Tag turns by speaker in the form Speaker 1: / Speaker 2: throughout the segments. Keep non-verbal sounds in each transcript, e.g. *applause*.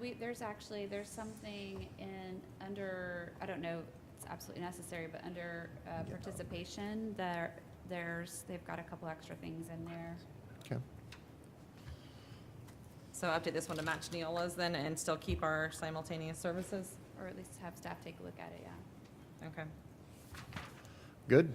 Speaker 1: We, there's actually, there's something in, under, I don't know, it's absolutely necessary, but under uh, participation, there, there's, they've got a couple extra things in there.
Speaker 2: Okay.
Speaker 3: So update this one to match Neola's then and still keep our simultaneous services?
Speaker 1: Or at least have staff take a look at it, yeah.
Speaker 3: Okay.
Speaker 2: Good.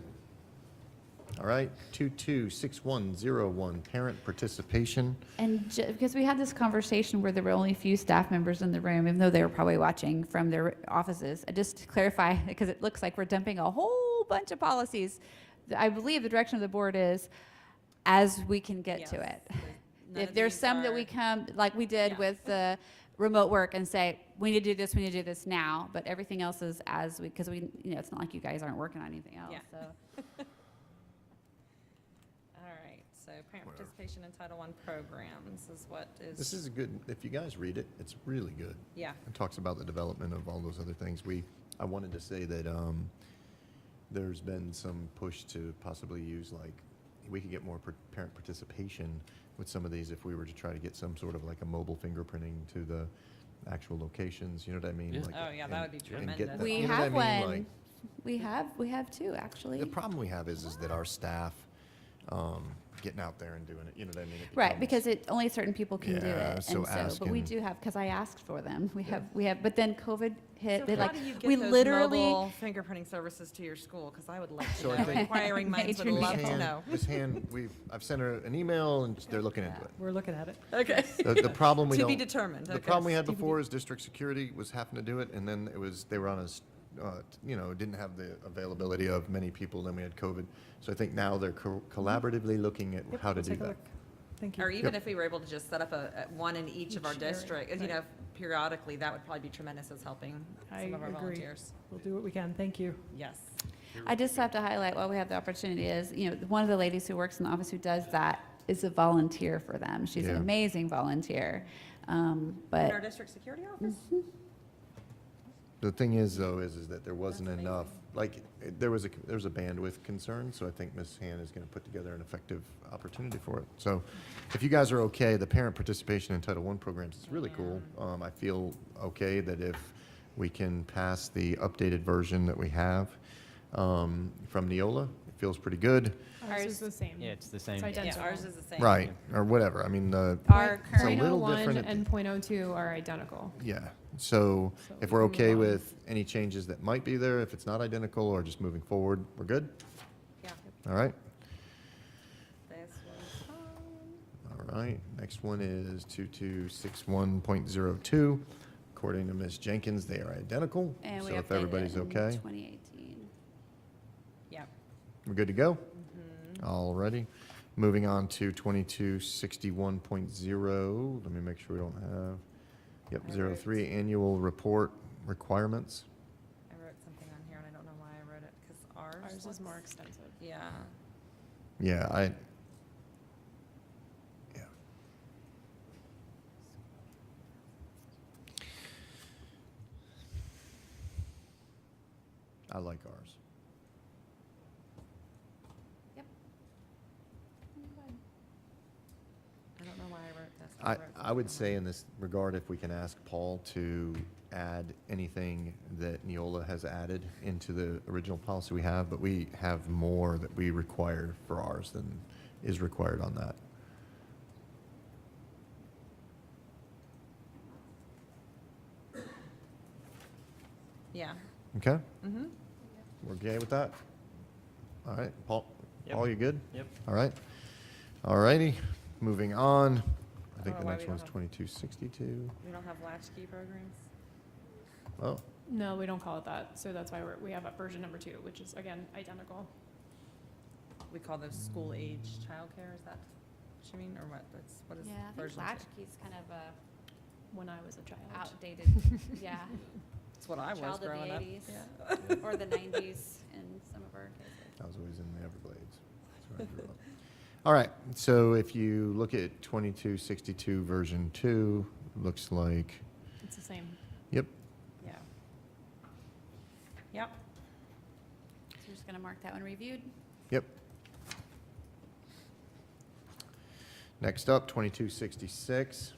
Speaker 2: All right, 226101, parent participation.
Speaker 1: And ju- because we had this conversation where there were only a few staff members in the room, even though they were probably watching from their offices, Uh, just to clarify, *laughs* because it looks like we're dumping a whole bunch of policies. I believe the direction of the board is, as we can get to
Speaker 3: Yes.
Speaker 1: it. *laughs*
Speaker 3: None
Speaker 1: If
Speaker 3: of
Speaker 1: there's
Speaker 3: these
Speaker 1: some that
Speaker 3: are-
Speaker 1: we come, like we did
Speaker 3: Yeah.
Speaker 1: with the remote work and say, we need to do this, we need to do this now, but everything else is as we, because we, you know, it's not like you guys aren't working on anything else,
Speaker 3: Yeah.
Speaker 1: so.
Speaker 3: All right, so parent participation in Title I programs is what is.
Speaker 2: This is a good, if you guys read it, it's really good.
Speaker 3: Yeah,
Speaker 2: It talks about the development of all those other things. We, I wanted to say that um, there's been some push to possibly use like, we could get more par- parent participation with some of these if we were to try to get some sort of like a mobile fingerprinting to the actual locations, you know what I mean?
Speaker 4: Yeah.
Speaker 2: Like,
Speaker 3: Oh, yeah, that
Speaker 2: and-
Speaker 3: would be
Speaker 2: and get
Speaker 3: tremendous.
Speaker 2: the-
Speaker 1: We
Speaker 2: you know what I
Speaker 1: have
Speaker 2: mean? Like,
Speaker 1: one, we have, we have two, actually.
Speaker 2: The problem we have is, is that our staff, um, getting out there and doing it, you know what I mean? It
Speaker 1: Right,
Speaker 2: becomes-
Speaker 1: because it, only certain people can do
Speaker 2: Yeah,
Speaker 1: it,
Speaker 2: so
Speaker 1: and so, but we
Speaker 2: asking-
Speaker 1: do have, because I asked for them, we
Speaker 2: Yeah.
Speaker 1: have, we have, but then COVID hit, they
Speaker 3: So how
Speaker 1: like,
Speaker 3: do you get
Speaker 1: we
Speaker 3: those
Speaker 1: literally,
Speaker 3: mobile fingerprinting services to your school? Because I would love to
Speaker 2: So I
Speaker 3: know.
Speaker 2: think-
Speaker 3: Inquiring minds would
Speaker 1: Major
Speaker 3: love
Speaker 2: Ms.
Speaker 3: to
Speaker 2: Han-
Speaker 3: know.
Speaker 2: Ms. Han, we've, I've sent her an email and they're looking into it.
Speaker 5: We're looking at it.
Speaker 3: Okay.
Speaker 2: The, the problem we
Speaker 3: To
Speaker 2: don't.
Speaker 3: be determined.
Speaker 2: The
Speaker 3: okay.
Speaker 2: problem we had before is district security was having to do it and then it was, they were on us, uh, you know, didn't have the availability of many people, then we had COVID. So I think now they're co- collaboratively looking at
Speaker 5: Yep,
Speaker 2: how to
Speaker 5: we'll
Speaker 2: do
Speaker 5: take a
Speaker 2: that.
Speaker 5: look. Thank
Speaker 3: Or
Speaker 5: you.
Speaker 3: even
Speaker 2: Yep.
Speaker 3: if we were able to just set up a, a- one in each of our
Speaker 5: Each area,
Speaker 3: district, you
Speaker 5: right.
Speaker 3: know, periodically, that would probably be tremendous as helping
Speaker 5: I
Speaker 3: some of our
Speaker 5: agree.
Speaker 3: volunteers.
Speaker 5: We'll do what we can. Thank you.
Speaker 3: Yes.
Speaker 1: I just have to highlight while we have the opportunity is, you know, one of the ladies who works in the office who does that is a volunteer for them, she's an
Speaker 2: Yeah.
Speaker 1: amazing volunteer, um,
Speaker 3: In our
Speaker 1: but,
Speaker 3: district security office?
Speaker 2: The thing is, though, is, is that there wasn't
Speaker 3: amazing.
Speaker 2: enough, like, it- there was a, there was a bandwidth concern, so I think Ms. Han is gonna put together an effective opportunity for it. So, if you guys are okay, the parent participation in Title I programs is really cool. Um, I feel okay that if we can pass the updated version that we have, um, from Neola, it feels pretty good.
Speaker 1: Ours-
Speaker 6: Ours is the same.
Speaker 4: Yeah, it's the same.
Speaker 6: It's
Speaker 3: Yeah,
Speaker 6: identical.
Speaker 3: ours is the same.
Speaker 2: Right, or whatever, I mean, the,
Speaker 1: Our current-
Speaker 6: Point-
Speaker 2: It's a little different
Speaker 6: 0.01
Speaker 2: at the-
Speaker 6: and .02 are identical.
Speaker 2: yeah. So,
Speaker 6: So
Speaker 2: if
Speaker 6: we
Speaker 2: we're
Speaker 6: can move
Speaker 2: okay
Speaker 6: on.
Speaker 2: with any changes that might be there, if it's not identical or just moving forward, we're good?
Speaker 3: Yeah.
Speaker 2: All right?
Speaker 3: This was fun.
Speaker 2: All right, next one is 2261.02. According to Ms. Jenkins, they are identical.
Speaker 1: and we
Speaker 2: So if
Speaker 1: updated
Speaker 2: everybody's
Speaker 1: in
Speaker 2: okay,
Speaker 1: 2018.
Speaker 3: Yep.
Speaker 2: we're good to go?
Speaker 1: Mm-hmm.
Speaker 2: All righty. Moving on to 2261.0, let me make sure we don't have,
Speaker 3: I
Speaker 2: yep,
Speaker 3: wrote-
Speaker 2: 03, annual report requirements.
Speaker 3: I wrote something on here and I don't know why I wrote it, because ours.
Speaker 6: Ours
Speaker 3: looks-
Speaker 6: is more extensive.
Speaker 3: Yeah.
Speaker 2: Yeah, I, yeah. I like ours.
Speaker 3: I don't know why I wrote this.
Speaker 2: I,
Speaker 3: wrote
Speaker 2: I would
Speaker 3: something
Speaker 2: say
Speaker 3: on-
Speaker 2: in this regard, if we can ask Paul to add anything that Neola has added into the original policy we have, but we have more that we require for ours than is required on that.
Speaker 3: Yeah.
Speaker 2: Okay?
Speaker 3: Mm-hmm.
Speaker 2: We're okay with that? All right, Paul,
Speaker 4: Yep.
Speaker 2: Paul, you good?
Speaker 4: Yep.
Speaker 2: All right. All righty, moving on. I think
Speaker 3: Oh,
Speaker 2: the
Speaker 3: why
Speaker 2: next
Speaker 3: we don't
Speaker 2: one's
Speaker 3: have-
Speaker 2: 2262.
Speaker 3: We don't have latchkey programs.
Speaker 2: Oh,
Speaker 6: No, we don't call it that, so that's why we're, we have a version number two, which is again, identical.
Speaker 3: We call those school age childcare, is that what you mean, or what, that's, what is
Speaker 1: Yeah, I think
Speaker 3: version two?
Speaker 1: latchkey's kind of a
Speaker 6: When I was a child.
Speaker 3: *laughs*
Speaker 1: outdated, yeah,
Speaker 3: It's what I
Speaker 1: child
Speaker 3: was
Speaker 1: of the
Speaker 3: growing up.
Speaker 1: 80s.
Speaker 3: Yeah.
Speaker 1: or the 90s in some of our cases.
Speaker 2: I was always in the Everglades. That's where I grew up. All right, so if you look at 2262 version 2, looks like,
Speaker 6: It's the same.
Speaker 2: yep,
Speaker 3: Yeah. Yep,
Speaker 1: So we're just going to mark that one reviewed.
Speaker 2: yep. Next up, 2266.